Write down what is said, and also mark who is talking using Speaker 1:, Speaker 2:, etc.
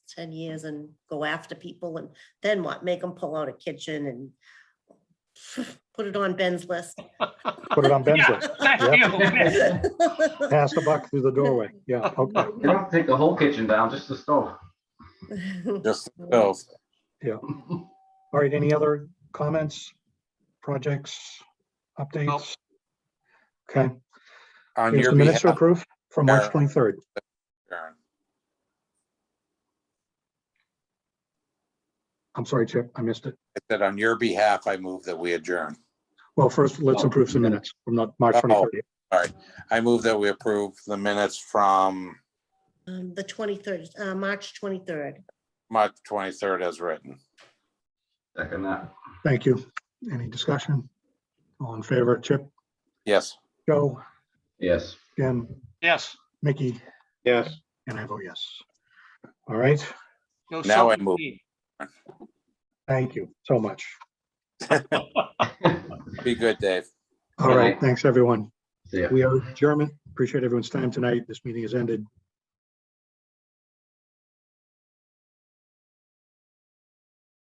Speaker 1: ten years and go after people and then what? Make them pull out a kitchen and put it on Ben's list.
Speaker 2: Put it on Ben's
Speaker 3: Yeah,
Speaker 2: list.
Speaker 3: that's the other way.
Speaker 2: Pass the buck through the doorway. Yeah, okay.
Speaker 4: You don't have to take the whole kitchen down, just the stove.
Speaker 5: Just bills.
Speaker 2: All right, any other comments, projects, updates? Okay,
Speaker 5: On
Speaker 2: here's
Speaker 5: your
Speaker 2: the minutes to
Speaker 5: behalf,
Speaker 2: approve for March
Speaker 5: Karen.
Speaker 2: 23rd.
Speaker 5: Karen.
Speaker 2: I'm sorry, Chip, I missed it.
Speaker 5: I said, on your behalf, I move that we adjourn.
Speaker 2: Well, first, let's approve some minutes from not March
Speaker 5: Oh.
Speaker 2: 23rd.
Speaker 5: I move that we approve the minutes from
Speaker 1: Um, The twenty-third, uh, March twenty-third.
Speaker 5: March twenty-third as written.
Speaker 4: Second that.
Speaker 2: Thank you. Any discussion? All in favor, Chip,
Speaker 5: Yes.
Speaker 2: Joe,
Speaker 4: Yes.
Speaker 2: Jim,
Speaker 3: Yes.
Speaker 2: Mickey,
Speaker 6: Yes,
Speaker 2: and I vote yes. All right,
Speaker 3: No
Speaker 5: Now I
Speaker 3: self
Speaker 5: move.
Speaker 3: esteem.
Speaker 2: thank you so much.
Speaker 5: Be good, Dave.
Speaker 2: All
Speaker 4: All
Speaker 2: right,
Speaker 4: right.
Speaker 2: thanks, everyone.
Speaker 4: See ya.
Speaker 2: We are German. Appreciate everyone's time tonight. This meeting is ended.